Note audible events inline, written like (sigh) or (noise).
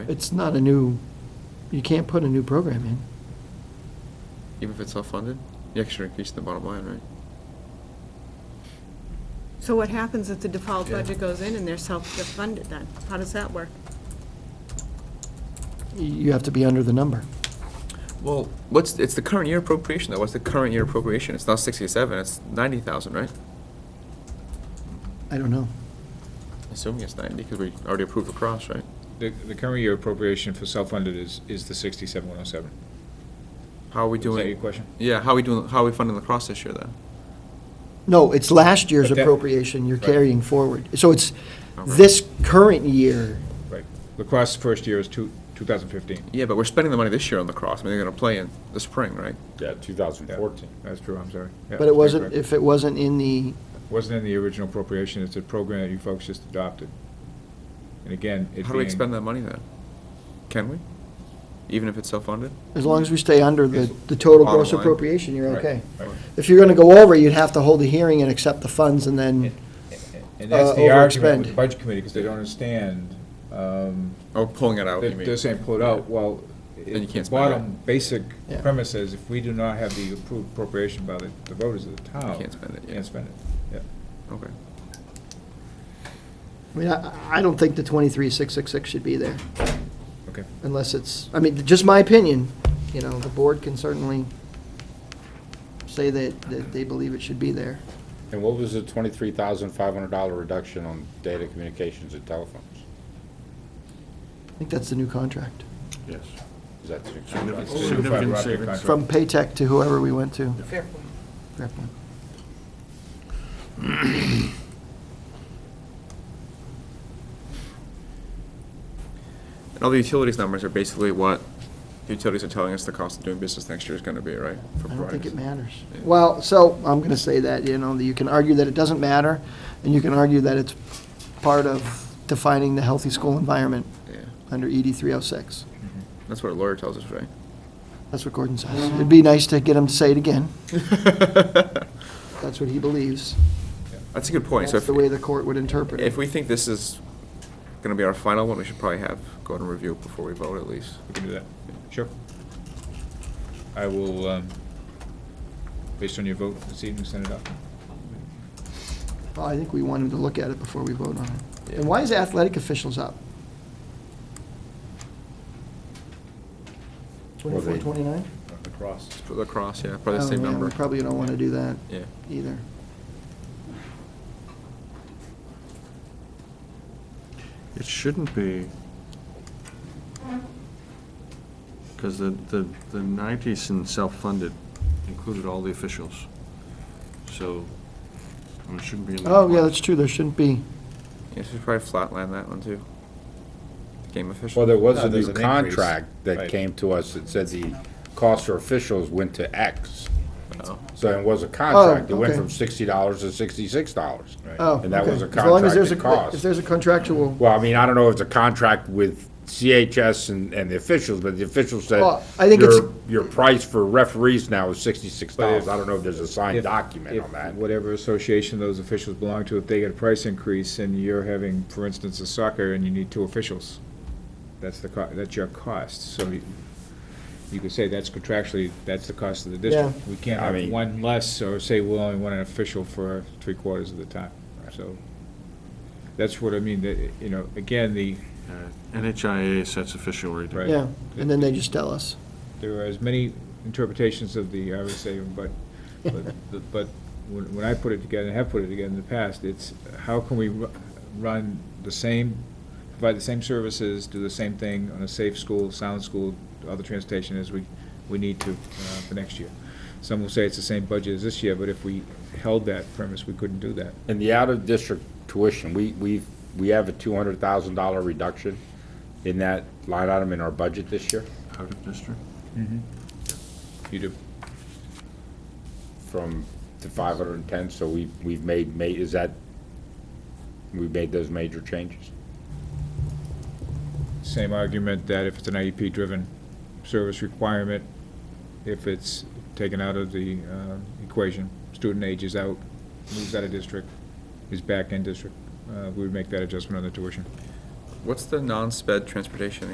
It's not a new, you can't put a new program in. Even if it's self-funded, you actually increase the bottom line, right? So what happens if the default Yeah. budget goes in and they're self-funded then? How does that work? You have to be under the number. Well, what's, it's the current year appropriation, though. What's the current year appropriation? It's not sixty-seven, it's ninety thousand, right? I don't know. Assuming it's ninety, because we already approved across, right? The, the current year appropriation for self-funded is, is the sixty-seven one oh seven. How are we Is that your doing? question? Yeah, how are we doing, how are we funding lacrosse this year, then? No, it's last year's But that- appropriation you're Right. carrying forward. So it's All right. this current year, Right. Lacrosse first year is two, two thousand fifteen. Yeah, but we're spending the money this year on lacrosse. I mean, they're gonna play in the spring, right? Yeah, 2014. That's true, I'm sorry. Yeah, but it you're wasn't, correct. if it wasn't in the, Wasn't in the original appropriation, it's a program that you folks just adopted. And again, it being. How do we expend that money, then? Can we? Even if it's self-funded? as long as we stay under the, It's the total bottom gross line. appropriation, you're Right, okay. right. If you're gonna go over, you'd have to hold a hearing and accept the funds and then, And that's Uh, the argument overexpend. with the budget committee, because they don't understand, um, Oh, pulling it out, They're you mean? they're saying pull it out, well, Then you it- can't the spend it. bottom basic Yeah. premise is if we do not have the approved appropriation by the the voters of the town. can't spend it, yeah. Can't spend it, yeah. Okay. I mean, I, I don't think the twenty-three, six, six, six should be there. Okay. Unless it's, I mean, just my opinion, you know, the board can certainly say that, that they believe it should be there. And what was the $23,500 reduction on data communications and telephones? I think that's the new contract. Yes. Is that the It's a Significant new fiber optic savings. contract. From Paytech to whoever we went to. Fair point. Fair point. And all the utilities numbers are basically what the utilities are telling us the cost of doing business next year is gonna be, right? for I don't think providers? it matters. Yeah. Well, so, I'm going to say that, you know, that you can argue that it doesn't matter, and you can argue that it's part of defining the healthy school environment Yeah, under E ED 306. that's what a lawyer tells us, (laughs) right? That's what Gordon says. It'd be nice to get him to say it again. That's what he believes. That's a good point. So That's if, the way the court would interpret it. if we think this is gonna be our final one, we should probably have, go and review it before we vote at least. We can do that. Sure. I will, um, based on your vote this evening, send it up. Well, I think we want him to look at it before we vote on it. Yeah. And why is athletic officials up? Well, Twenty-four, they- twenty-nine? Oh, It's for Lacrosse, yeah, probably the same number. We probably don't want to do that Yeah. either. It shouldn't be. Because the, the, the nineties in self-funded included all the officials. So, I mean, it shouldn't be in the. Oh, yeah, that's true, there shouldn't be. Yeah, so we should probably flatline that one too. Game official. Well, there was No, a there's new an increase. contract that Right. came to us that said the cost for officials went to X. Oh. So it was a contract. It went okay. from $60 to $66. Oh, And that was a okay. As long as there's a- contracted cost. If there's a contractual, Well, I mean, I don't know if it's a contract with CHS and, and the officials, but the officials said. Well, I think it's- "Your- Your price for referees now is sixty-six dollars. But if- I don't know if there's a signed If- document if on that. Whatever association those officials belong to, if they get a price increase and you're having, for instance, a soccer and you need two officials, that's the, co- that's your cost. So you, you could say that's contractually, that's the cost of the district. We can't I have mean- one less or say we'll only want an official for three quarters of the time. So that's what I mean, that, you know, again, the, Uh, NHIA sets official rate. Right. yeah, and then they just tell us. there are as many interpretations of the RSA, but, but, but when when I put it together, and have put it together in the past, it's how can we ru- run the same, provide the same services, do the same thing on a safe school, sound school, other transportation as we, we need to uh, for next year. Some will say it's the same budget as this year, but if we held that premise, we couldn't do that. In the out-of-district tuition, we, we, we have a two hundred thousand dollar reduction in that line item in our budget this year Out of district. You do. from the five hundred and ten, so we, we've made, ma, is that, we made those major changes? Same argument that if it's an IEP-driven service requirement, if it's taken out of the uh, equation, student age is out, moves out of district, is back in district, uh, we would make that adjustment on the tuition. What's the non-sped transportation